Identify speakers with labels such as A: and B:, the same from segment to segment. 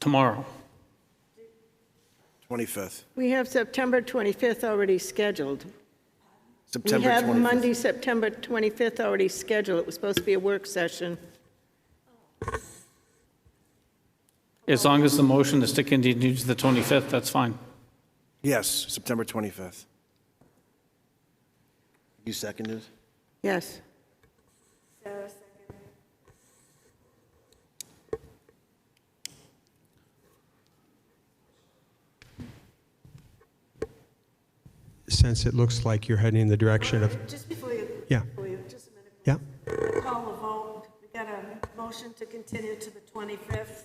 A: tomorrow.
B: 25th,
C: We have September 25th already scheduled. We
B: September
C: have
B: 25th.
C: Monday, September 25th already scheduled. It was supposed to be a work session.
A: As long as the motion is to continue to the 25th, that's fine.
B: Yes, September 25th. You seconded?
C: Yes.
D: since it looks like you're heading in the direction of,
E: Just before you,
D: yeah,
E: before you, just a
D: yeah,
E: minute, call a vote. We got a motion to continue to the 25th.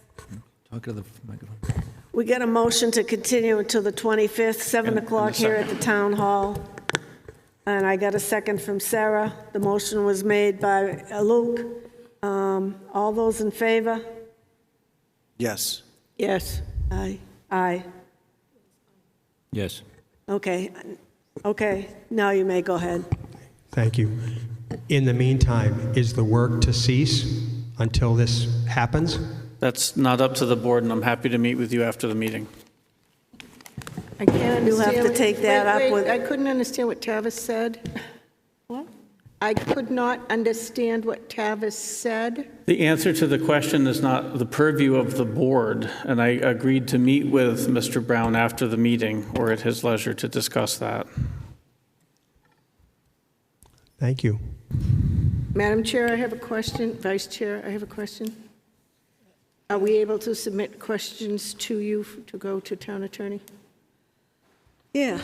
F: Talk to the microphone.
E: We got a motion to continue until the 25th, 7 o'clock here at the town hall. And I got a second from Sarah. The motion was made by uh, Luke. Um, All those in favor?
B: Yes.
C: Yes.
E: Aye. Aye.
F: Yes.
E: Okay, okay, now you may go ahead.
D: thank you. In the meantime, is the work to cease until this happens?
A: That's not up to the board, and I'm happy to meet with you after the meeting.
C: I can't understand.
E: You'll have to
C: what-
E: take that
C: wait,
E: up
C: wait,
E: with-
C: I couldn't understand what Tavis said.
E: What?
C: I could not understand what Tavis said.
A: The answer to the question is not the purview of the board, and I agreed to meet with Mr. Brown after the meeting or at his leisure to discuss that.
D: Thank you.
C: Madam Chair, I have a question. Vice Chair, I have a question. Are we able to submit questions to you f- to go to town attorney?
E: Yeah.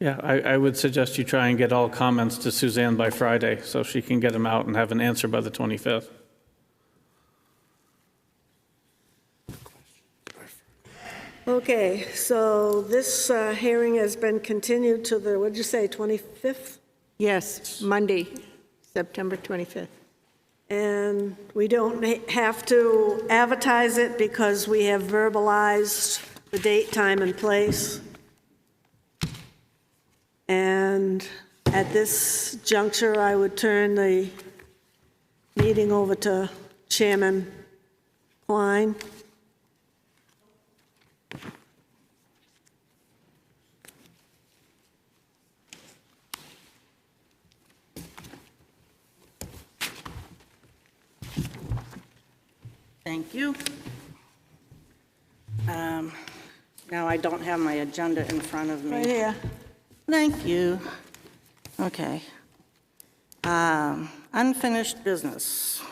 A: Yeah, I, I would suggest you try and get all comments to Suzanne by Friday, so she can get them out and have an answer by the 25th.
E: Okay, so this uh, hearing has been continued to the, what'd you say, 25th?
C: Yes, Monday, September 25th.
E: And we don't ha- have to advertise it because we have verbalized the date, time, and place. And at this juncture, I would turn the meeting over to Chairman Klein.
G: Thank you. Um, Now, I don't have my agenda in front of me.
E: Right here.
G: Thank you. Okay. Um, Unfinished business.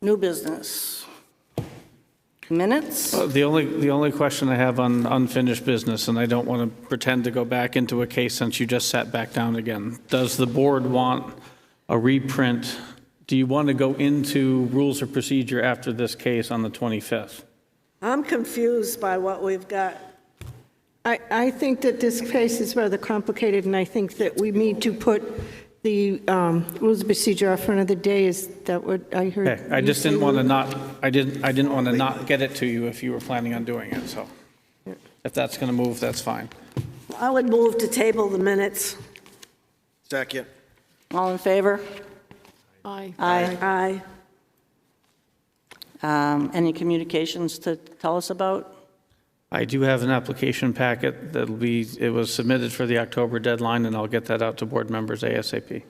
G: New business. Minutes?
A: Uh, The only, the only question I have on unfinished business, and I don't want to pretend to go back into a case since you just sat back down again. Does the board want a reprint? Do you want to go into rules of procedure after this case on the 25th?
E: I'm confused by what we've got.
C: I, I think that this case is rather complicated, and I think that we need to put the um, rules of procedure off for another day. Is that what I heard?
A: Okay, I
C: you
A: just didn't
C: say?
A: want to not, I didn't, I didn't want to not get it to you if you were planning on doing it, so. If that's going to move, that's fine.
E: I would move to table the minutes.
B: Second.
G: All in favor?
C: Aye.
E: Aye.
G: Um, Any communications to tell us about?
A: I do have an application packet that'll be, it was submitted for the October deadline, and I'll get that out to board members ASAP.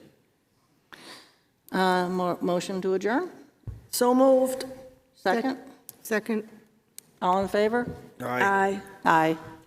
G: Uh, mo- Motion to adjourn?
E: So moved.
G: Second?
C: Second?
G: All in favor?
C: Uh,
B: Aye.
E: Aye.
G: Aye.